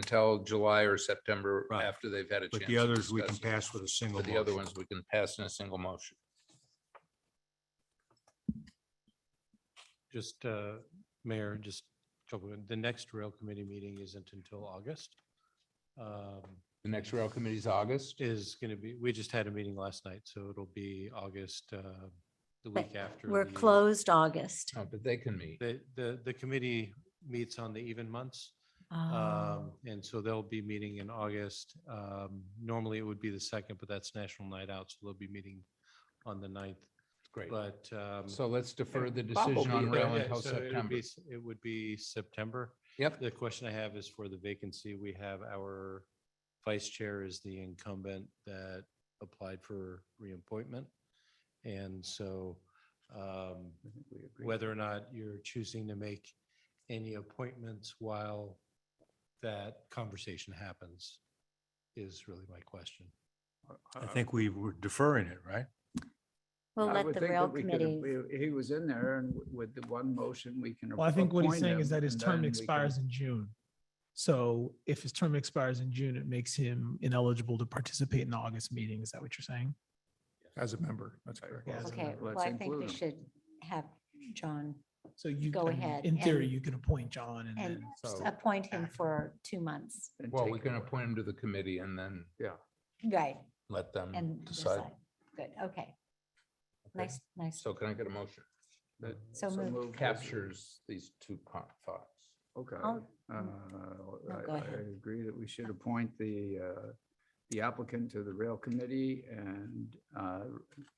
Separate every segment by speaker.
Speaker 1: until July or September
Speaker 2: Right.
Speaker 1: after they've had a chance.
Speaker 2: But the
Speaker 1: to
Speaker 2: others we can
Speaker 1: discuss it.
Speaker 2: pass with a single.
Speaker 1: But the other
Speaker 2: motion.
Speaker 1: ones we can pass in a single motion.
Speaker 3: Just, uh, Mayor, just, a couple of- the next rail committee meeting isn't until August. Um,
Speaker 1: The next rail committee is August.
Speaker 3: Is going to be, we just had a meeting last night, so it'll be August, uh, the
Speaker 4: But
Speaker 3: week after.
Speaker 4: We're
Speaker 3: the-
Speaker 4: closed August.
Speaker 1: Oh, But they can meet.
Speaker 3: The, the, the committee meets on the even months.
Speaker 4: Oh,
Speaker 3: Um, and so they'll be meeting in August. Um, normally it would be the second, but that's National Night Out, so they'll be meeting on the ninth,
Speaker 1: Great.
Speaker 3: but, um.
Speaker 1: So let's defer the
Speaker 3: Bob will
Speaker 1: decision
Speaker 3: be
Speaker 1: on
Speaker 3: here.
Speaker 1: rail
Speaker 3: Yeah,
Speaker 1: until
Speaker 3: so it would be
Speaker 1: September.
Speaker 3: s- It would be September.
Speaker 1: Yep.
Speaker 3: The question I have is for the vacancy. We have our vice chair is the incumbent that applied for reappointment. And so um, whether or not you're choosing to make any appointments while that conversation happens is really my question.
Speaker 2: I think we were deferring it, right?
Speaker 4: We'll
Speaker 5: I
Speaker 4: let
Speaker 5: would
Speaker 4: the
Speaker 5: think
Speaker 4: rail
Speaker 5: that we could-
Speaker 4: committee,
Speaker 5: we- He was in there and w- with the one motion, we can.
Speaker 6: Well, I think what he's
Speaker 5: appoint
Speaker 6: saying is
Speaker 5: him,
Speaker 6: that his
Speaker 5: and
Speaker 6: term
Speaker 5: then we
Speaker 6: expires
Speaker 5: can-
Speaker 6: in June. So if his term expires in June, it makes him ineligible to participate in the August meeting. Is that what you're saying?
Speaker 2: As a member, that's correct.
Speaker 6: Yeah.
Speaker 4: okay,
Speaker 5: Let's
Speaker 4: well, I think
Speaker 5: include
Speaker 4: we
Speaker 5: him.
Speaker 4: should have John
Speaker 6: So you,
Speaker 4: Go
Speaker 6: I mean,
Speaker 4: ahead
Speaker 6: in theory,
Speaker 4: and-
Speaker 6: you can appoint John and
Speaker 4: and
Speaker 6: then.
Speaker 1: So-
Speaker 4: appoint him
Speaker 6: act.
Speaker 4: for two months.
Speaker 5: and
Speaker 1: Well,
Speaker 5: take
Speaker 1: we
Speaker 5: it
Speaker 1: can
Speaker 5: away.
Speaker 1: appoint him to the committee and then
Speaker 4: Right,
Speaker 1: let them
Speaker 4: and
Speaker 1: decide.
Speaker 4: decide. Good, okay. Nice, nice.
Speaker 1: So can I get a motion?
Speaker 5: That-
Speaker 4: So moved.
Speaker 5: moved.
Speaker 1: Captures these two co- thoughts.
Speaker 5: Okay.
Speaker 4: I'll- Oh,
Speaker 5: uh, I
Speaker 4: go
Speaker 5: I
Speaker 4: ahead.
Speaker 5: agree that we should appoint the, uh, the applicant to the rail committee and, uh,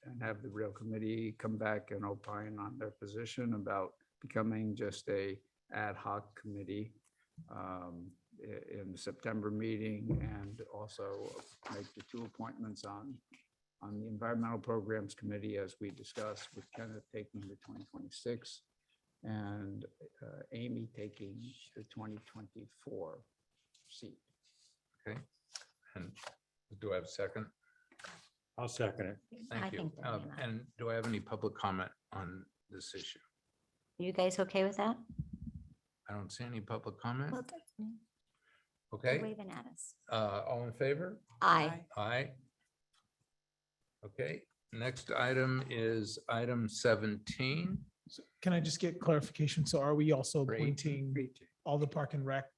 Speaker 5: and have the rail committee come back and opine on their position about becoming just a ad hoc committee um, i- in the September meeting and also make the two appointments on, on the Environmental Programs Committee as we discussed with Kenneth taking the 2026 and uh, Amy taking the 2024 seat.
Speaker 1: And do I have a second?
Speaker 2: I'll second it.
Speaker 4: I
Speaker 1: Thank you.
Speaker 4: think they'll
Speaker 1: Um,
Speaker 4: be enough.
Speaker 1: And do I have any public comment on this issue?
Speaker 4: You guys okay with that?
Speaker 1: I don't see any public comment.
Speaker 4: Well, that's new. They're
Speaker 1: Okay,
Speaker 4: Waving at us.
Speaker 1: uh, all in favor?
Speaker 4: Aye.
Speaker 1: Aye. Okay, next item is item seventeen.
Speaker 6: So Can I just get clarification? So are we also
Speaker 1: For 18,
Speaker 6: appointing
Speaker 5: Great.
Speaker 6: all the park and rec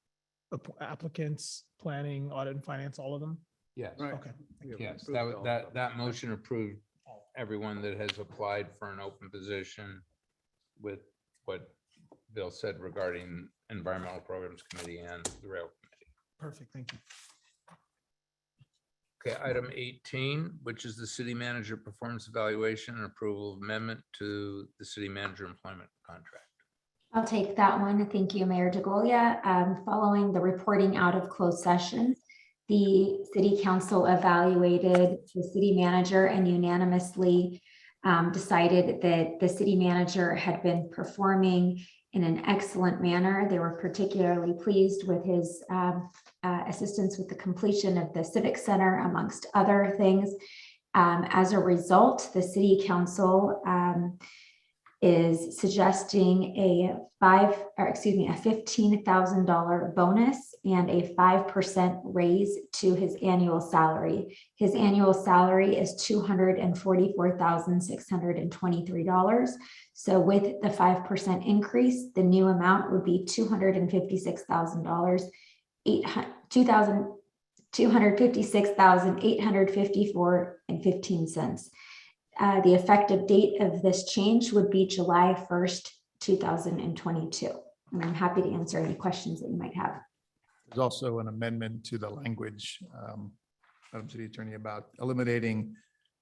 Speaker 6: app- applicants, planning, audit and finance, all of them?
Speaker 1: Yes.
Speaker 5: Right.
Speaker 6: Okay.
Speaker 5: We have
Speaker 1: Yes,
Speaker 5: approved
Speaker 1: that,
Speaker 5: all
Speaker 1: wa-
Speaker 5: of
Speaker 1: that,
Speaker 5: them.
Speaker 1: that motion approved everyone that has applied for an open position with what Bill said regarding Environmental Programs Committee and the Rail Committee.
Speaker 6: Perfect. Thank you.
Speaker 1: Okay, item eighteen, which is the city manager performance evaluation and approval amendment to the city manager employment contract.
Speaker 7: I'll take that one. Thank you, Mayor DeGolia. Um, Following the reporting out of closed session, the city council evaluated the city manager and unanimously um, decided that the city manager had been performing in an excellent manner. They were particularly pleased with his um, uh, assistance with the completion of the civic center, amongst other things. Um, As a result, the city council um, is suggesting a five, or excuse me, a fifteen thousand dollar bonus and a five percent raise to his annual salary. His annual salary is two hundred and forty-four thousand, six hundred and twenty-three dollars. So with the five percent increase, the new amount would be two hundred and fifty-six thousand dollars, eight hundred two thousand two hundred fifty-six thousand eight hundred fifty-four and fifteen cents. Uh, the effective date of this change would be July first, two thousand and twenty-two. And I'm happy to answer any questions that you might have.
Speaker 8: There's also an amendment to the language, um, Madam City Attorney, about eliminating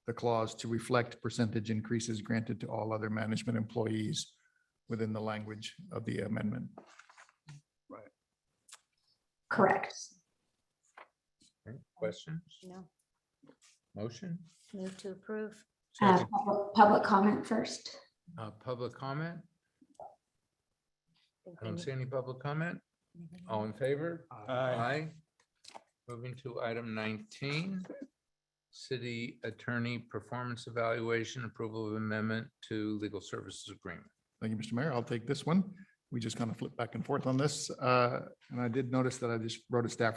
Speaker 8: the clause to reflect percentage increases granted to all other management employees within the language of the amendment.
Speaker 7: Correct.
Speaker 1: Okay, Questions,
Speaker 4: No,
Speaker 1: motion,
Speaker 4: move to approve.
Speaker 7: Uh, public- Public comment first.
Speaker 1: uh, public comment? I
Speaker 4: think they
Speaker 1: don't
Speaker 4: need-
Speaker 1: see any public comment.
Speaker 4: anything else?
Speaker 1: All in favor? Aye. Moving to item nineteen, city attorney performance evaluation, approval of amendment to legal services agreement.
Speaker 8: Thank you, Mr. Mayor. I'll take this one.
Speaker 5: we just kind of flipped back and forth on this. Uh, And I did notice that I just wrote a staff